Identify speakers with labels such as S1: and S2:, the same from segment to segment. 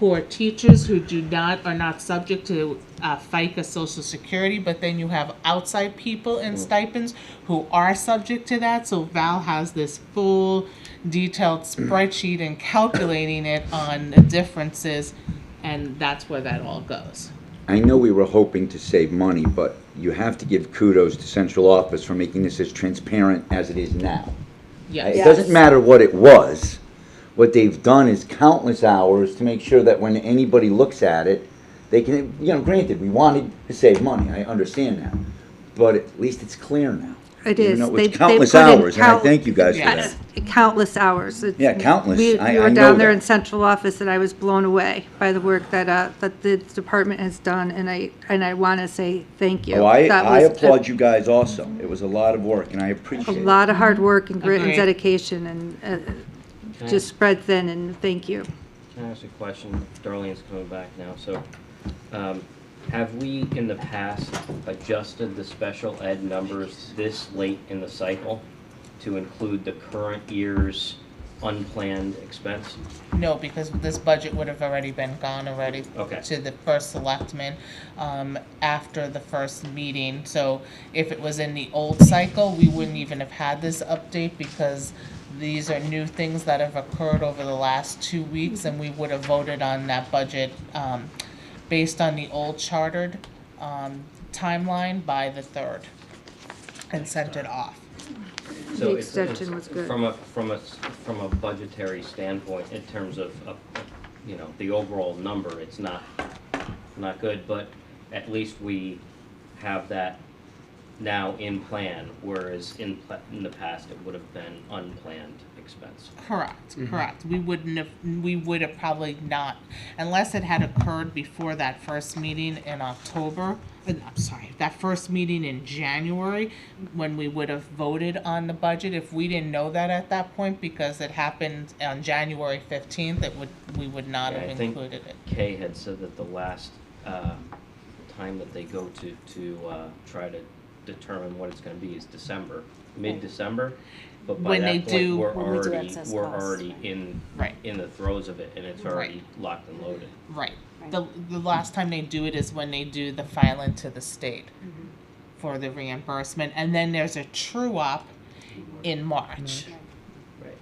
S1: who are teachers who do not, are not subject to uh, FICA social security, but then you have outside people in stipends who are subject to that, so Val has this full detailed spreadsheet and calculating it on the differences, and that's where that all goes.
S2: I know we were hoping to save money, but you have to give kudos to central office for making this as transparent as it is now. It
S1: Yes,
S2: doesn't matter what it was. What they've done is countless hours to make sure that when anybody looks at it, they can, you know, granted, we wanted to save money, I understand that. But at least it's clear now.
S3: It
S2: Even
S3: is.
S2: though
S3: They've-
S2: it's
S3: they've
S2: countless
S3: put in
S2: hours, and I
S3: count-
S2: thank you guys for
S1: Yes.
S2: that.
S3: Countless hours. It's-
S2: Yeah, countless.
S3: We
S2: I-
S3: we
S2: I
S3: were
S2: know
S3: down there
S2: that.
S3: in central office, and I was blown away by the work that, uh, that the department has done, and I, and I want to say thank you.
S2: Oh, I,
S3: That
S2: I
S3: was a-
S2: applaud you guys also. It was a lot of work, and I
S3: A
S2: appreciate it.
S3: lot of hard work and grit and
S1: Agreed.
S3: dedication, and uh, just spread thin, and thank you.
S4: Can I ask a question? Darlene's coming back now, so, um, have we in the past adjusted the special ed numbers this late in the cycle to include the current year's unplanned expense?
S1: no, because this budget would have already been gone already
S4: Okay.
S1: to the first selectman um, after the first meeting. So if it was in the old cycle, we wouldn't even have had this update because these are new things that have occurred over the last two weeks and we would have voted on that budget um, based on the old chartered um, timeline by the third and sent it off.
S3: The
S4: So it's- it's-
S3: extension was good.
S4: From a, from a, s- from a budgetary standpoint, in terms of, of, you know, the overall number, it's not, not good, but at least we have that now in plan, whereas in, pla- in the past, it would have been unplanned expense.
S1: Correct,
S4: Mm-hmm.
S1: correct. We wouldn't have, we would have probably not, unless it had occurred before that first meeting in October, uh, I'm sorry, that first meeting in January, when we would have voted on the budget, if we didn't know that at that point, because it happened on January fifteenth, it would, we would not
S4: Yeah, I
S1: have
S4: think-
S1: included it.
S4: Kay had said that the last, uh, time that they go to, to, uh, try to determine what it's gonna be is December, mid-December. But by
S1: When they
S4: that point,
S1: do-
S4: we're
S5: When we do
S4: already,
S5: excess
S4: we're
S5: costs,
S4: already
S5: right.
S4: in,
S1: Right.
S4: in the throes of it, and it's already locked and loaded.
S1: Right. The, the last time they do it is when they do the filing to the state for the reimbursement, and then there's a true up in March.
S4: Right.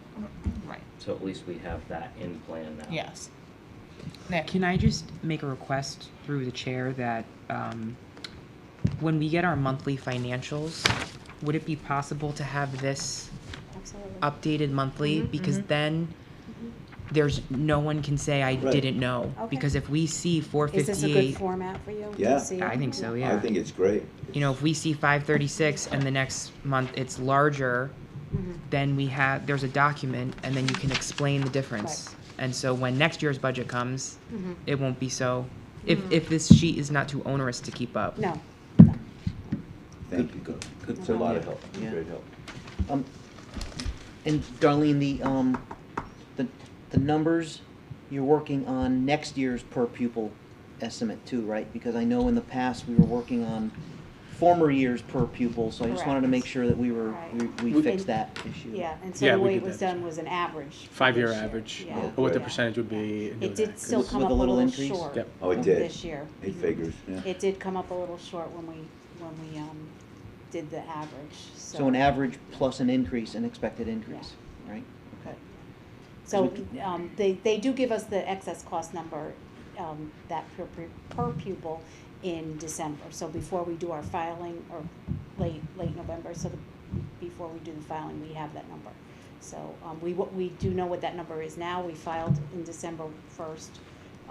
S1: Right,
S4: So at least we have that in plan now.
S1: yes. Nick?
S6: Can I just make a request through the chair that um, when we get our monthly financials, would it be possible to have this
S5: Absolutely.
S6: updated monthly?
S5: Mm-hmm,
S6: Because then there's, no one can say, I
S2: Right.
S6: didn't know.
S5: Okay.
S6: Because if we see
S5: Is this a good
S6: 458,
S5: format for you? Do you
S2: Yeah.
S5: see
S6: I
S5: it?
S6: think so,
S2: I
S6: Oh, yeah.
S2: think it's great.
S6: You know, if we see 536 and the next month it's larger, then we have, there's a document and then you can explain the difference. And so when next year's budget comes, it won't be so, if, if this sheet is not too onerous to keep up.
S5: No.
S2: Thank you. Good. It's a lot of help, great help.
S7: Um, and Darlene, the, um, the, the numbers, you're working on next year's per pupil estimate too, right? Because I know in the past, we were working on former years per pupil, so I just wanted to make sure that we were, we, we
S5: Right.
S7: fixed that issue.
S5: Yeah, and so
S8: Yeah,
S5: the
S8: we
S5: way it
S8: did
S5: was
S8: that.
S5: done was an average. for
S8: Five-year
S5: this year.
S8: average,
S5: Yeah.
S8: or what the
S5: Yeah.
S8: percentage would be. and
S5: It
S8: do
S5: did
S8: that,
S5: still
S8: 'cause-
S5: come
S7: With
S5: up a
S7: a little
S5: little
S7: increase?
S5: short.
S8: Yep.
S2: Oh, it did.
S5: This year. Mhm.
S2: It figures, yeah.
S5: It did come up a little short when we, when we, um, did the average, so.
S7: So an average plus an increase, an expected increase, right? Okay.
S5: So, um, they, they do give us the excess cost number, um, that per, per- per pupil in December. So before we do our filing, or late, late November, so the, before we do the filing, we have that number. So, um, we, what, we do know what that number is now, we filed in December first.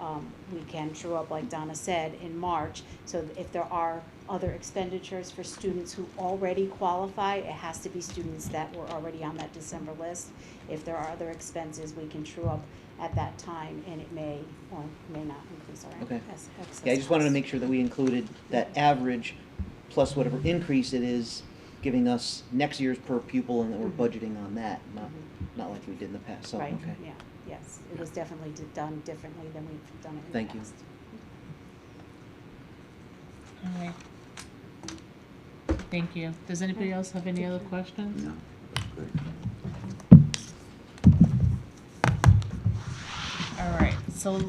S5: Um, we can true up, like Donna said, in March, so if there are other expenditures for students who already qualify, it has to be students that were already on that December list. If there are other expenses, we can true up at that time, and it may or may not increase our
S7: Okay.
S5: ex- excess
S7: Yeah, I just wanted to
S5: costs.
S7: make sure that we included that average plus whatever increase it is, giving us next year's per pupil and that we're budgeting on that, not, not like we did in the past, so, okay.
S5: Right, yeah, yes, it was definitely d- done differently than we've done it in the
S7: Thank you.
S5: past.
S1: All right. Thank you. Does anybody else have any other questions?
S2: No, great.
S1: All right, so